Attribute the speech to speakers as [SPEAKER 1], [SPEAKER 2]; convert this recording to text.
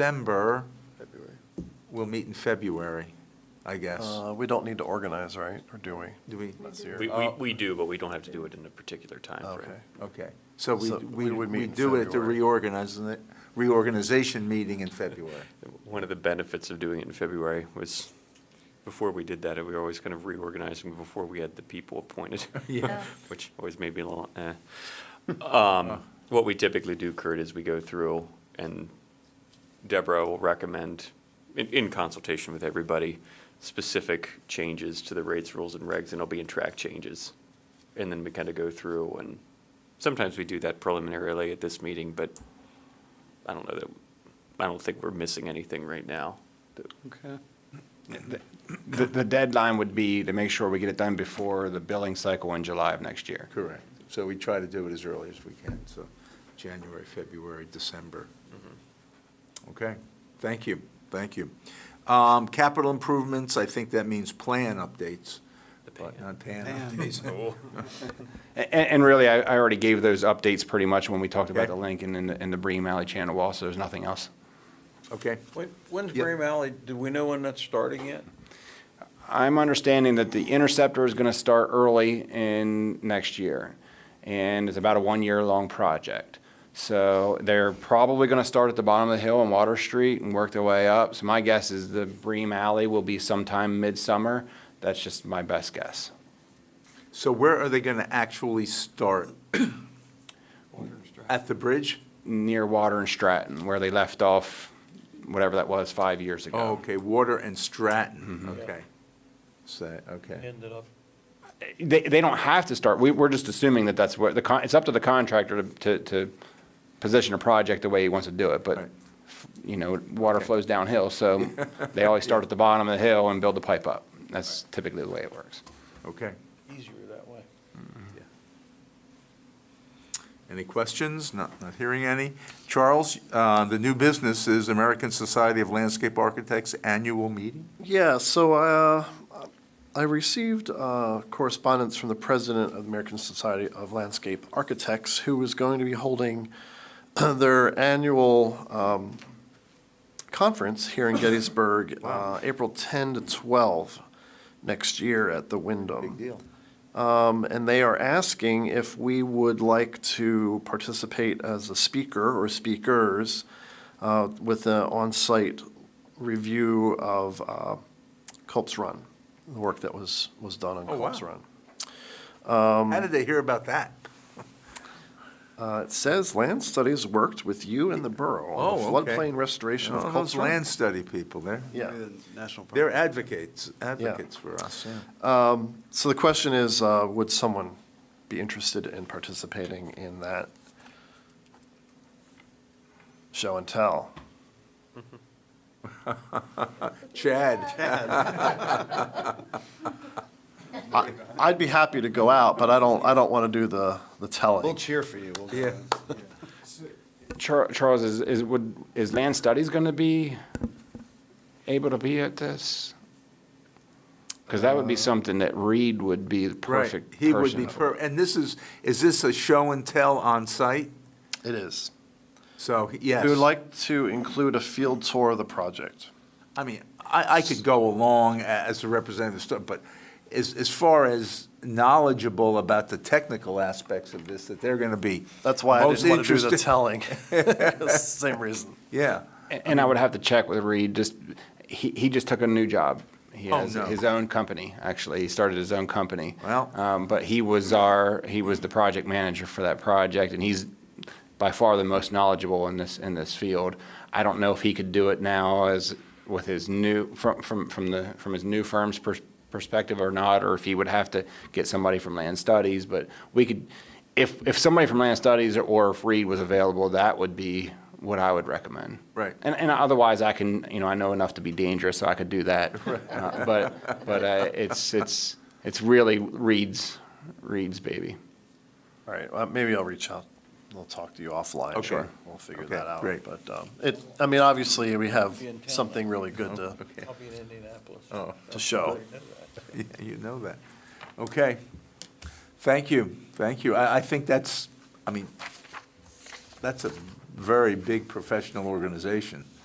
[SPEAKER 1] December,
[SPEAKER 2] February.
[SPEAKER 1] we'll meet in February, I guess.
[SPEAKER 2] Uh, We don't need to organize, right, or do we?
[SPEAKER 1] Do we?
[SPEAKER 2] This year?
[SPEAKER 3] We, we,
[SPEAKER 1] Oh.
[SPEAKER 3] we do, but we don't have to do it in a particular timeframe.
[SPEAKER 2] Okay.
[SPEAKER 1] Okay, so we,
[SPEAKER 2] So
[SPEAKER 1] we
[SPEAKER 2] we would meet
[SPEAKER 1] we
[SPEAKER 2] in
[SPEAKER 1] do it at the
[SPEAKER 2] February.
[SPEAKER 1] reorganiz, reorganization meeting in February.
[SPEAKER 3] One of the benefits of doing it in February was, before we did that, we were always kind of reorganizing before we had the people appointed.
[SPEAKER 1] Yeah.
[SPEAKER 3] Which always made me a little, eh. Um, What we typically do, Kurt, is we go through and Deborah will recommend, in, in consultation with everybody, specific changes to the rates, rules, and regs, and it'll be in track changes. And then we kind of go through and sometimes we do that preliminarily at this meeting, but I don't know that, I don't think we're missing anything right now.
[SPEAKER 4] Okay. The, the deadline would be to make sure we get it done before the billing cycle in July of next year.
[SPEAKER 1] Correct. So we try to do it as early as we can, so January, February, December.
[SPEAKER 2] Mm-hmm.
[SPEAKER 1] Okay, thank you, thank you. Um, Capital improvements, I think that means plan updates, but not tan
[SPEAKER 4] Pan.
[SPEAKER 1] updates.
[SPEAKER 4] And, and really, I, I already gave those updates pretty much when we talked about
[SPEAKER 1] Okay.
[SPEAKER 4] the Lincoln and the, and the Bream Alley Channel Wall, so there's nothing else.
[SPEAKER 1] Okay,
[SPEAKER 5] When- When's
[SPEAKER 1] Yep.
[SPEAKER 5] Bream Alley, do we know when that's starting yet?
[SPEAKER 4] I'm understanding that the Interceptor is gonna start early in next year, and it's about a one-year-long project. So they're probably gonna start at the bottom of the hill on Water Street and work their way up. So my guess is the Bream Alley will be sometime midsummer. That's just my best guess.
[SPEAKER 1] so where are they going to actually start? At the bridge?
[SPEAKER 4] near Water and Stratton, where they left off, whatever that was, five years ago.
[SPEAKER 1] Oh, okay, Water and Stratton, okay. So, okay,
[SPEAKER 5] Ended up.
[SPEAKER 4] They, they don't have to start, we, we're just assuming that that's where, the, con- it's up to the contractor to, to, to position a project the way he wants to do it, but,
[SPEAKER 1] Right.
[SPEAKER 4] you know, water flows downhill, so they always start at the bottom of the hill and build the pipe up. That's typically the way it works.
[SPEAKER 1] okay.
[SPEAKER 5] Easier that way.
[SPEAKER 1] Any questions? Not, not hearing any. Charles, uh, the new business is American Society of Landscape Architects Annual Meeting?
[SPEAKER 2] Yeah, so uh, I received uh, correspondence from the president of the American Society of Landscape Architects, who was going to be holding their annual um, conference here in Gettysburg, uh, April 10 to 12 next year at the Wyndham.
[SPEAKER 1] deal.
[SPEAKER 2] Um, and they are asking if we would like to participate as a speaker or speakers uh, with an on-site review of uh, Culp's Run, the work that was, was done on
[SPEAKER 1] Oh, wow.
[SPEAKER 2] Culp's Run.
[SPEAKER 1] How did they hear about that?
[SPEAKER 2] Uh, It says land studies worked with you and the borough on the
[SPEAKER 1] Oh, okay.
[SPEAKER 2] floodplain restoration of
[SPEAKER 1] Oh,
[SPEAKER 2] Culp's
[SPEAKER 1] Those land
[SPEAKER 2] Run.
[SPEAKER 1] study people, they're,
[SPEAKER 2] Yeah.
[SPEAKER 1] they're advocates, advocates for us, yeah.
[SPEAKER 2] So the question is, uh, would someone be interested in participating in that show and tell?
[SPEAKER 1] Chad,
[SPEAKER 2] I- I'd be happy to go out, but I don't, I don't want to do the, the telling.
[SPEAKER 6] cheer for you.
[SPEAKER 1] yeah,
[SPEAKER 4] Char- Charles, is, is, would, is land studies gonna be able to be at this? Because that would be something that Reed would be the
[SPEAKER 1] Uh, right.
[SPEAKER 4] perfect
[SPEAKER 1] He would
[SPEAKER 4] person
[SPEAKER 1] be,
[SPEAKER 4] for.
[SPEAKER 1] per- and this is, is this a show and tell on site?
[SPEAKER 2] It is.
[SPEAKER 1] So, yes.
[SPEAKER 2] We would like to include a field tour of the project.
[SPEAKER 1] I mean, I, I could go along a- as a representative, sto- but as, as far as knowledgeable about the technical aspects of this, that they're going to be.
[SPEAKER 2] That's why I
[SPEAKER 1] most
[SPEAKER 2] didn't want to do the
[SPEAKER 1] interested-
[SPEAKER 2] telling. Same reason.
[SPEAKER 1] Yeah,
[SPEAKER 4] A- And I would have to check with Reed, just, he, he just took a new job. He
[SPEAKER 1] Oh,
[SPEAKER 4] has
[SPEAKER 1] no.
[SPEAKER 4] his own company, actually. He started his own company.
[SPEAKER 1] Well.
[SPEAKER 4] Um, but he was our, he was the project manager for that project, and he's by far the most knowledgeable in this, in this field. I don't know if he could do it now as, with his new, from, from, from the, from his new firm's pers- perspective or not, or if he would have to get somebody from land studies, but we could, if, if somebody from land studies or if Reed was available, that would be what I would recommend.
[SPEAKER 1] Right.
[SPEAKER 4] And, and otherwise, I can, you know, I know enough to be dangerous, so I could do that. Uh, But, but uh, it's, it's, it's really Reed's, Reed's baby.
[SPEAKER 2] All right, well, maybe I'll reach out. I'll talk to you offline.
[SPEAKER 1] Okay.
[SPEAKER 2] Sure. We'll figure
[SPEAKER 1] Okay,
[SPEAKER 2] that out.
[SPEAKER 1] great.
[SPEAKER 2] But um, it, I mean, obviously, we have
[SPEAKER 5] Be in town.
[SPEAKER 2] something really good to,
[SPEAKER 1] Uh-huh. okay,
[SPEAKER 5] I'll be in Indianapolis.
[SPEAKER 1] Oh.
[SPEAKER 2] to show.
[SPEAKER 1] Yeah, you know that. Okay, thank you, thank you. I, I think that's, I mean, that's a very big professional organization.